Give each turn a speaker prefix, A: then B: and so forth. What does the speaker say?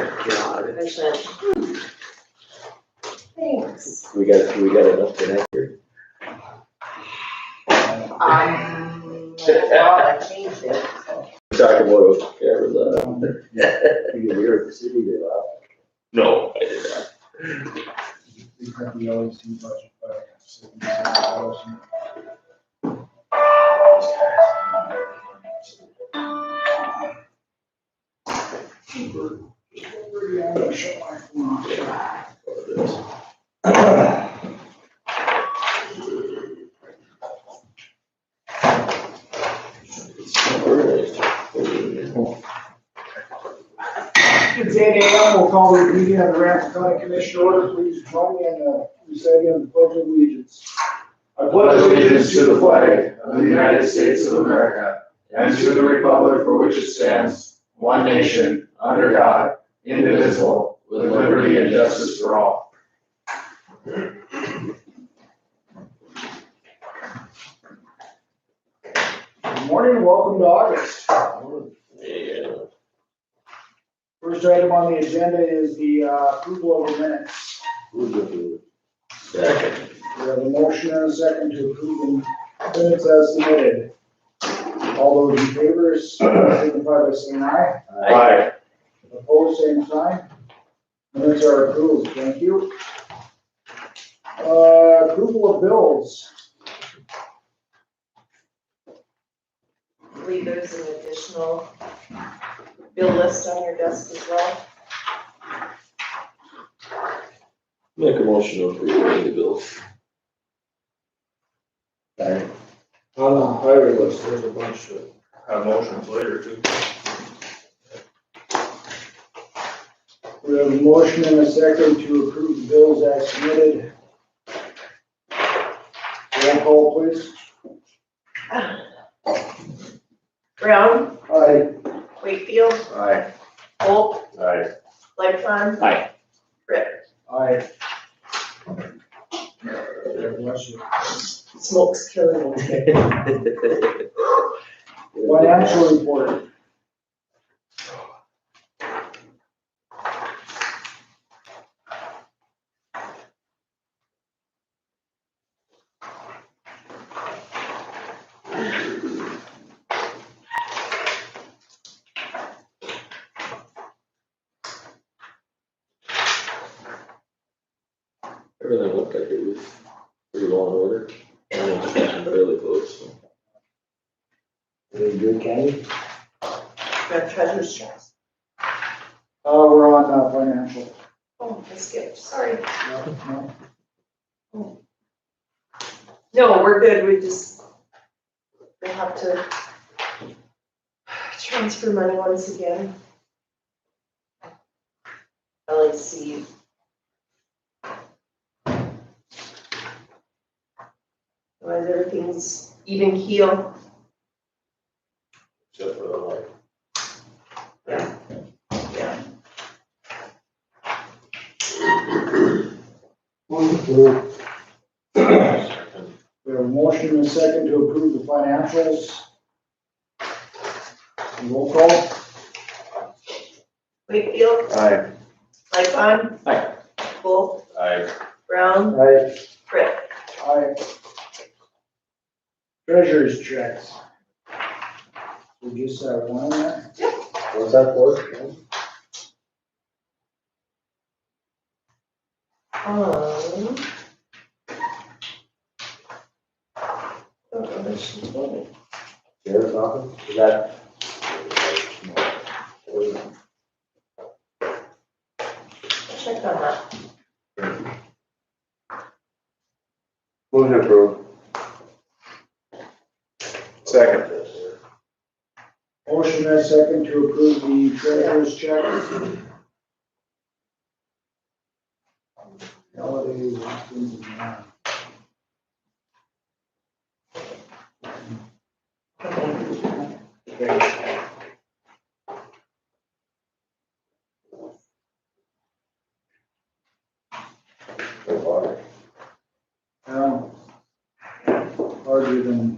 A: God.
B: That's it. Thanks.
C: We got, we got enough for next year.
B: Um, well, I changed it.
C: Talking about whatever
A: uh,
C: the. You can hear it, the city, they laugh.
A: No, I did not.
D: We have the LEC budget, but. so we have the LEC. It's eight AM, we'll call the meeting of the Ramsey County Commission order, please join me in uh, the reciting of the pledge of allegiance.
E: I pledge allegiance to the flag of the United States of America and to the republic for which it stands, one nation, under God, indivisible, with liberty and justice for all.
D: Good morning, welcome to August.
A: Yeah.
D: First item on the agenda is the uh, approval of the minutes.
C: Who's gonna-
A: Second.
D: We have a motion and a second to approve the minutes as submitted. All those in favor, signify by saying aye.
E: Aye.
D: Opposed, same sign. Minutes are approved, thank you. Uh, approval of bills.
B: I believe there's an additional bill list on your desk as well.
A: Make a motion to approve the bills.
C: Alright.
A: On the higher list, there's a bunch of.
E: Have motions later too.
D: We have a motion and a second to approve the bills as submitted. Roll call, please.
B: Brown,
D: Aye.
B: Wakefield,
E: Aye.
B: Holt,
E: Aye.
B: Lightfun.
A: Aye.
B: Ritter,
D: Aye.
B: smoke's killing me.
D: Financial report.
A: Everything looked like it was pretty well in order. I don't think I'm Really close, so.
C: Any good candy?
B: Got treasures chest.
D: Uh, we're on, uh, financial.
B: Oh, I skipped, sorry.
D: No,
B: No, we're good, we just, we have to transfer money once again. LAC. Otherwise, everything's even keel.
E: Except for the light.
B: Yeah.
D: no. We have a motion and a second to approve the financials. Roll call.
B: Wakefield,
E: Aye.
B: Lightfun.
A: Aye.
B: Volk,
E: Aye.
B: Brown,
D: Aye.
B: Britt.
D: Aye. Treasurer's checks. We just have one uh, there.
C: What's that for?
B: Um. Oh, she told me.
C: Sheriff's office, is that?
B: Check on that.
C: Move to approve.
E: Second.
D: Motion and a second to approve the treasurer's check. Holidays, things like that. Um, Harder uh, than